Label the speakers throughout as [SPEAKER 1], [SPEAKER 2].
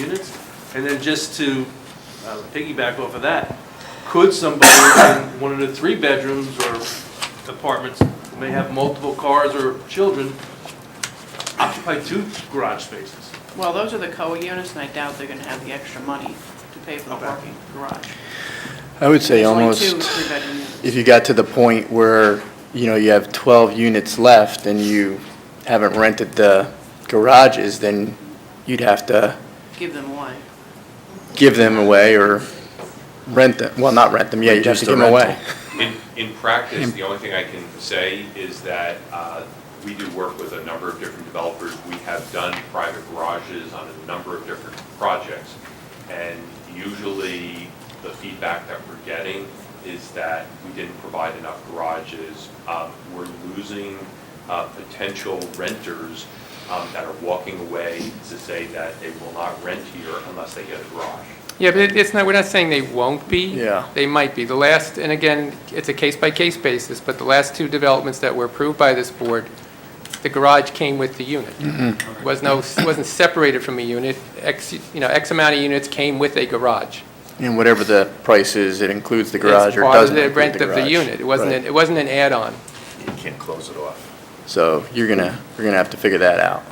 [SPEAKER 1] units? And then just to uh, piggyback off of that, could somebody in one of the three bedrooms or apartments who may have multiple cars or children occupy two garage spaces?
[SPEAKER 2] Well, those are the COA units, and I doubt they're gonna have the extra money to pay for the
[SPEAKER 1] Okay.
[SPEAKER 2] parking garage.
[SPEAKER 3] I would say
[SPEAKER 2] There's only two
[SPEAKER 3] almost,
[SPEAKER 2] three-bedroom units.
[SPEAKER 3] if you got to the point where, you know, you have 12 units left and you haven't rented the garages, then you'd have to
[SPEAKER 2] Give them away.
[SPEAKER 3] give them away or rent them, well, not rent them, yeah, you'd have
[SPEAKER 4] Reduce the
[SPEAKER 3] to give them away.
[SPEAKER 4] rental.
[SPEAKER 5] In, in practice, the only thing I can say is that uh, we do work with a number of different developers. We have done private garages on a number of different projects. And usually, the feedback that we're getting is that we didn't provide enough garages. Um, We're losing uh, potential renters um, that are walking away to say that they will not rent here unless they get a garage.
[SPEAKER 6] Yeah, but it- it's not, we're not saying they won't be.
[SPEAKER 3] Yeah.
[SPEAKER 6] They might be. The last, and again, it's a case-by-case basis, but the last two developments that were approved by this board, the garage came with the unit.
[SPEAKER 3] Mm-hmm.
[SPEAKER 6] Was no, wasn't separated from a unit. X, you know, X amount of units came with a garage.
[SPEAKER 3] And whatever the price is, it includes the garage
[SPEAKER 6] It's
[SPEAKER 3] or
[SPEAKER 6] part of
[SPEAKER 3] doesn't include the garage.
[SPEAKER 6] rent of the unit. It wasn't,
[SPEAKER 3] Right.
[SPEAKER 6] an- it wasn't an add-on.
[SPEAKER 4] You can't close it off.
[SPEAKER 3] So you're gonna, you're gonna have to figure that out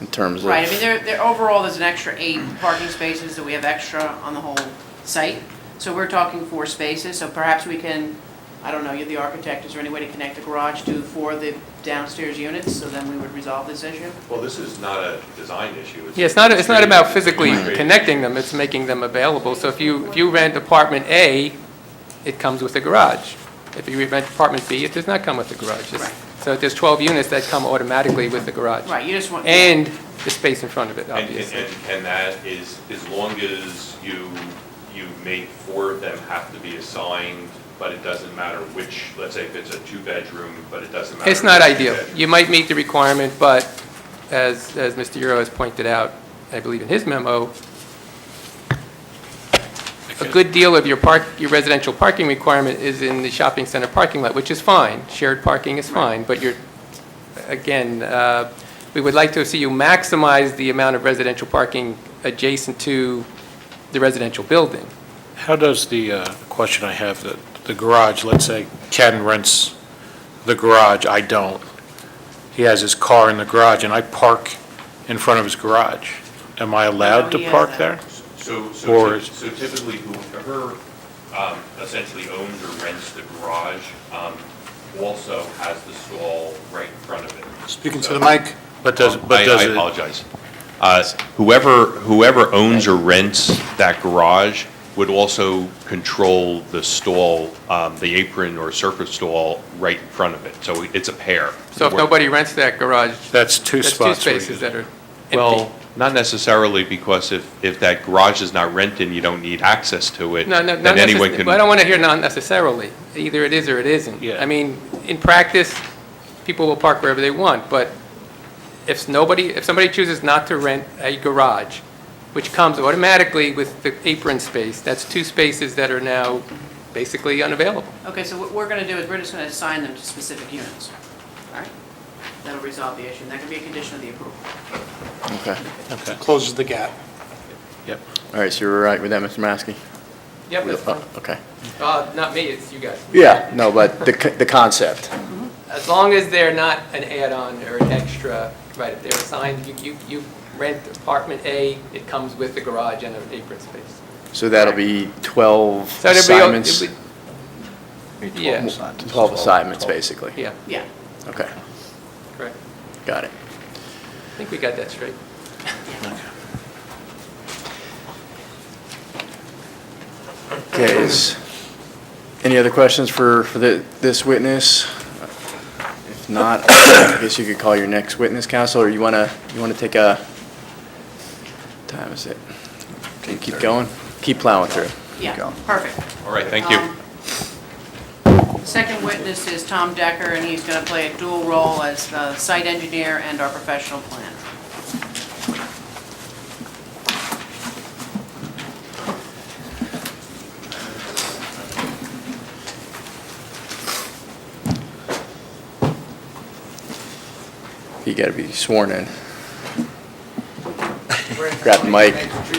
[SPEAKER 3] in terms of.
[SPEAKER 2] Right, I mean, there, there, overall, there's an extra eight parking spaces that we have extra on the whole site. So we're talking four spaces, so perhaps we can, I don't know, you're the architect, is there any way to connect the garage to four of the downstairs units? So then we would resolve this issue?
[SPEAKER 5] Well, this is not a design issue.
[SPEAKER 6] Yeah, it's not, it's not about physically
[SPEAKER 5] Right.
[SPEAKER 6] connecting them, it's making them available. So if you, if you rent apartment A, it comes with a garage. If you rent apartment B, it does not come with a garage. It's-
[SPEAKER 2] Right.
[SPEAKER 6] So there's 12 units that come automatically with the garage.
[SPEAKER 2] Right, you just want.
[SPEAKER 6] And the space in front of it,
[SPEAKER 5] And, and-
[SPEAKER 6] obviously.
[SPEAKER 5] and, and that is, as long as you, you make four of them have to be assigned, but it doesn't matter which, let's say if it's a two-bedroom, but it doesn't matter.
[SPEAKER 6] It's not
[SPEAKER 5] which
[SPEAKER 6] ideal.
[SPEAKER 5] bedroom.
[SPEAKER 6] You might meet the requirement, but as, as Mr. Euro has pointed out, I believe in his memo, a good deal of your park, your residential parking requirement is in the shopping center parking lot, which is fine. Shared parking is fine, but you're, again, uh, we would like to see you maximize the amount of residential parking adjacent to the residential building.
[SPEAKER 7] How does the uh, question I have, the- the garage, let's say Ken rents the garage, I don't. He has his car in the garage, and I park in front of his garage. Am I allowed
[SPEAKER 2] No, he has
[SPEAKER 7] to park
[SPEAKER 2] that.
[SPEAKER 7] there?
[SPEAKER 5] So, so
[SPEAKER 7] Or-
[SPEAKER 5] typ- so typically whoever um, essentially owns or rents the garage um, also has the stall right in front of it.
[SPEAKER 4] Speaking
[SPEAKER 5] So-
[SPEAKER 4] to the mic.
[SPEAKER 7] But does,
[SPEAKER 5] Oh, I-
[SPEAKER 7] but does
[SPEAKER 5] I
[SPEAKER 7] it,
[SPEAKER 5] apologize. Uh, Whoever, whoever owns or rents that garage would also control the stall, um, the apron or surface stall right in front of it. So it's a pair.
[SPEAKER 6] So if nobody rents that garage,
[SPEAKER 7] that's two
[SPEAKER 6] that's two
[SPEAKER 7] spots. where you-
[SPEAKER 6] spaces that are empty.
[SPEAKER 5] Well, not necessarily, because if, if that garage is not rented, you don't need access to it.
[SPEAKER 6] No, no, not
[SPEAKER 5] Then anyone
[SPEAKER 6] necessarily,
[SPEAKER 5] can.
[SPEAKER 6] I don't want to hear not necessarily. Either it is or it isn't.
[SPEAKER 7] Yeah.
[SPEAKER 6] I mean, in practice, people will park wherever they want, but if nobody, if somebody chooses not to rent a garage, which comes automatically with the apron space, that's two spaces that are now basically unavailable.
[SPEAKER 2] Okay, so what we're gonna do is we're just gonna assign them to specific units, all right? That'll resolve the issue, and that can be a condition of the approval.
[SPEAKER 3] Okay.
[SPEAKER 7] Okay,
[SPEAKER 4] Closes the gap.
[SPEAKER 7] yep.
[SPEAKER 3] All right, so you're all right with that, Mr. Maskey? Oh,
[SPEAKER 6] Yep, that's fine.
[SPEAKER 3] Okay.
[SPEAKER 6] Uh, Not me, it's you guys.
[SPEAKER 3] Yeah, no, but the, c- the concept.
[SPEAKER 6] As long as they're not an add-on or an extra, right, if they're assigned, you- you you rent apartment A, it comes with a garage and an apron space.
[SPEAKER 3] So that'll be 12
[SPEAKER 6] So it'd be- it
[SPEAKER 3] assignments?
[SPEAKER 6] would- Yeah,
[SPEAKER 3] Assignments. 12 assignments, basically.
[SPEAKER 6] yeah,
[SPEAKER 2] Yeah,
[SPEAKER 3] Okay,
[SPEAKER 6] correct.
[SPEAKER 3] got it.
[SPEAKER 6] I think we got that straight.
[SPEAKER 3] Okay, is, any other questions for, for the, this witness? If not, I guess you could call your next witness, counsel, or you want to, you want to take a, time is it? Okay, keep going, keep plowing through.
[SPEAKER 2] yeah, perfect.
[SPEAKER 5] All right, thank you.
[SPEAKER 2] Um, Second witness is Tom Decker, and he's gonna play a dual role as the site engineer and our professional planner.
[SPEAKER 3] You got to be sworn in.
[SPEAKER 2] We're in
[SPEAKER 3] grab the mic.